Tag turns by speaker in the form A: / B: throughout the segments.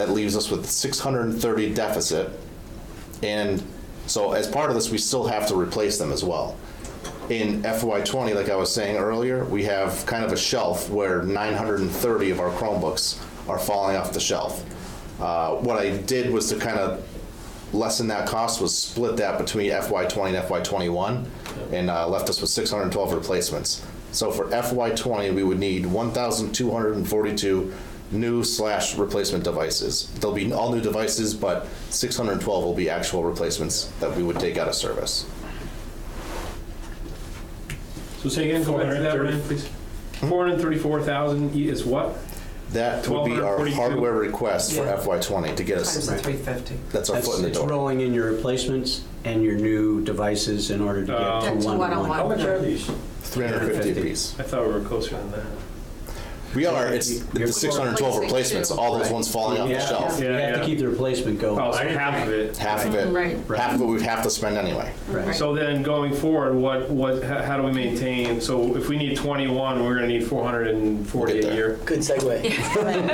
A: That leaves us with 630 deficit. And so as part of this, we still have to replace them as well. In FY '20, like I was saying earlier, we have kind of a shelf where 930 of our Chromebooks are falling off the shelf. Uh, What I did was to kind of lessen that cost, was split that between FY '20 and FY '21, and uh, left us with 612 replacements. So for FY '20, we would need 1,242 new slash replacement devices. There'll be all new devices, but 612 will be actual replacements that we would take out of service.
B: So say again, go ahead, that, Ryan, please.
A: Hmm?
B: Four hundred and thirty-four thousand is what?
A: That would be our
B: 1242.
A: hardware request for
C: Yeah.
A: FY '20 to get
C: Times
A: us,
C: the three fifty.
A: that's our
D: That's,
A: foot in the
D: it's
A: door.
D: rolling in your replacements and your new devices in order to
B: Uh,
D: get
E: That's
D: to
E: one-on-one.
D: one-to-one.
F: How much are these?
A: 350 apiece.
B: I thought we were closer than that.
A: We are, it's the 612 replacements, all those ones falling off the
D: Yeah.
A: shelf.
D: We
B: Yeah,
D: have
B: yeah.
D: to keep the replacement
B: Oh,
D: going.
B: so half of it.
A: Half of it,
E: Right.
A: half of it we'd have to spend anyway.
D: Right.
B: So then going forward, what, what, how how do we maintain, so if we need twenty-one, we're gonna need four hundred and forty
A: We'll get
B: a
A: there.
B: year.
G: Good segue.
C: Amen.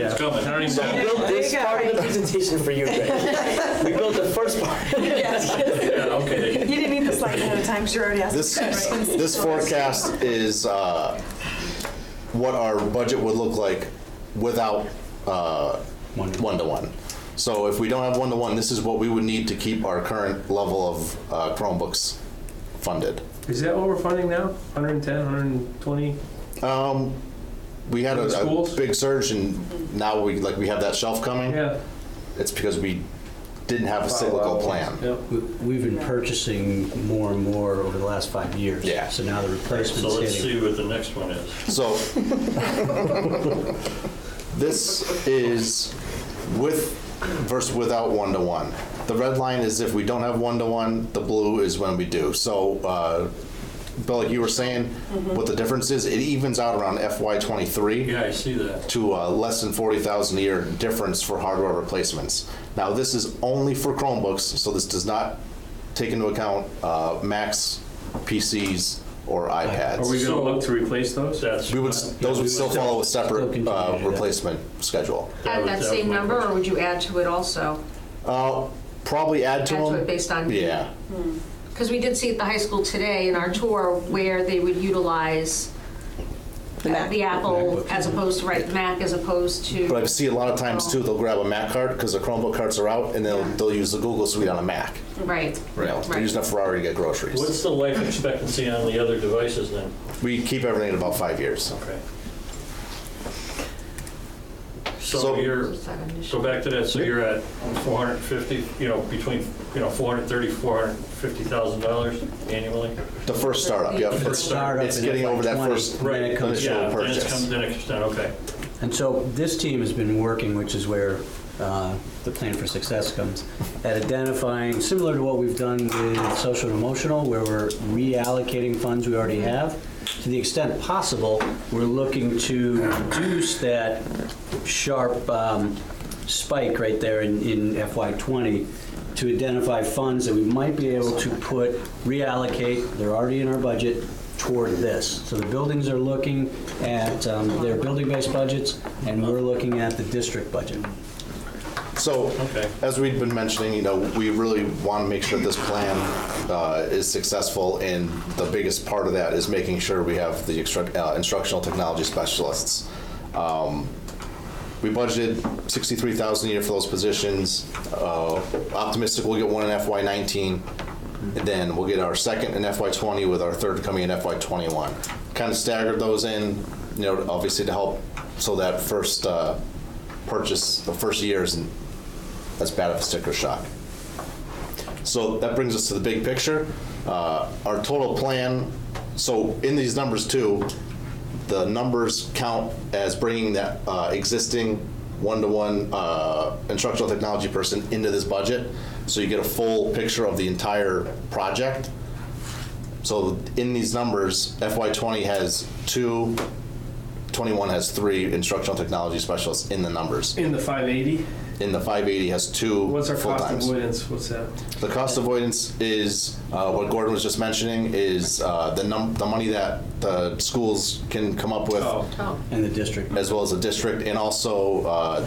B: It's coming, I don't even know.
G: Built this part of the presentation for you, Greg. We built the first part.
C: You didn't need the slide ahead of time, sure already asked.
A: This, this forecast is uh, what our budget would look like without uh, one-to-one. So if we don't have one-to-one, this is what we would need to keep our current level of uh, Chromebooks funded.
B: Is that what we're funding now? Hundred and ten, hundred and twenty?
A: Um, We had
B: For the
A: a- a
B: schools?
A: big surge and now we, like, we have that shelf coming.
B: Yeah.
A: It's because we didn't have a cyclical plan.
B: Yep.
D: We- We've been purchasing more and more over the last five years.
A: Yeah.
D: So now the
F: So
D: replacement's
F: let's
D: hitting.
F: see what the next one is.
A: So this is with versus without one-to-one. The red line is if we don't have one-to-one, the blue is when we do. So, uh, Bill, like you were saying, what the difference is, it evens out around FY '23.
F: Yeah, I see that.
A: to uh, less than 40,000 a year difference for hardware replacements. Now, this is only for Chromebooks, so this does not take into account uh, Macs, PCs, or
B: Are
A: iPads.
B: we gonna
F: So-
B: look to replace those?
F: That's.
A: We would,
F: not-
A: s- those would still follow a
D: still
A: separate
D: continue
A: uh,
D: to do that.
A: replacement schedule.
E: At
F: was-
E: that
F: was
E: same
F: my
E: number,
F: question.
E: or would you add to it also?
A: Uh, Probably add to
E: Add to it
A: them.
E: based on?
A: Yeah,
E: Because we did see at the high school today in our tour where they would utilize
C: The Mac.
E: the Apple as opposed to, right, Mac as opposed to.
A: but I see a lot of times too, they'll grab a Mac card because the Chromebook cards are out and they'll, they'll use the Google Suite on a Mac.
E: Right.
A: You know, They're
E: Right.
A: using a Ferrari to get groceries.
F: What's the life expectancy on the other devices then?
A: We keep everything at about five years.
F: Okay.
A: So-
F: So you're,
E: Is that an issue?
F: so back to that, so you're at 450, you know, between, you know, 430, 450,000 dollars annually?
A: The first startup, yeah.
D: If it's
A: first-
D: startup
A: It's
D: and
A: getting
D: it's
A: over that
D: like 20,
A: first
D: Then it comes
A: initial
F: Yeah, then it's
A: purchase.
F: comes, then it's done, okay.
D: And so this team has been working, which is where uh, the plan for success comes, at identifying, similar to what we've done with social and emotional, where we're reallocating funds we already have. To the extent possible, we're looking to reduce that sharp um, spike right there in in FY20 to identify funds that we might be able to put, reallocate, they're already in our budget, toward this. So the buildings are looking at um, their building-based budgets, and we're looking at the district budget.
A: So,
F: Okay.
A: as we've been mentioning, you know, we really want to make sure this plan uh, is successful, and the biggest part of that is making sure we have the instruct- uh, instructional technology specialists. Um, We budgeted 63,000 a year for those positions. Uh, Optimistic we'll get one in FY '19, and then we'll get our second in FY '20 with our third coming in FY '21. Kind of staggered those in, you know, obviously to help, so that first uh, purchase, the first year isn't as bad of a sticker shock. So that brings us to the big picture. Uh, Our total plan, so in these numbers too, the numbers count as bringing that uh, existing one-to-one uh, instructional technology person into this budget. So you get a full picture of the entire project. So in these numbers, FY '20 has two, '21 has three instructional technology specialists in the numbers.
B: In the five eighty?
A: In the 580 has two
B: What's our cost
A: full-times.
B: avoidance, what's that?
A: The cost avoidance is, uh, what Gordon was just mentioning, is uh, the num, the money that the schools can come up with,
B: Oh.
E: Oh.
D: And the district
A: as well as the district, and also uh,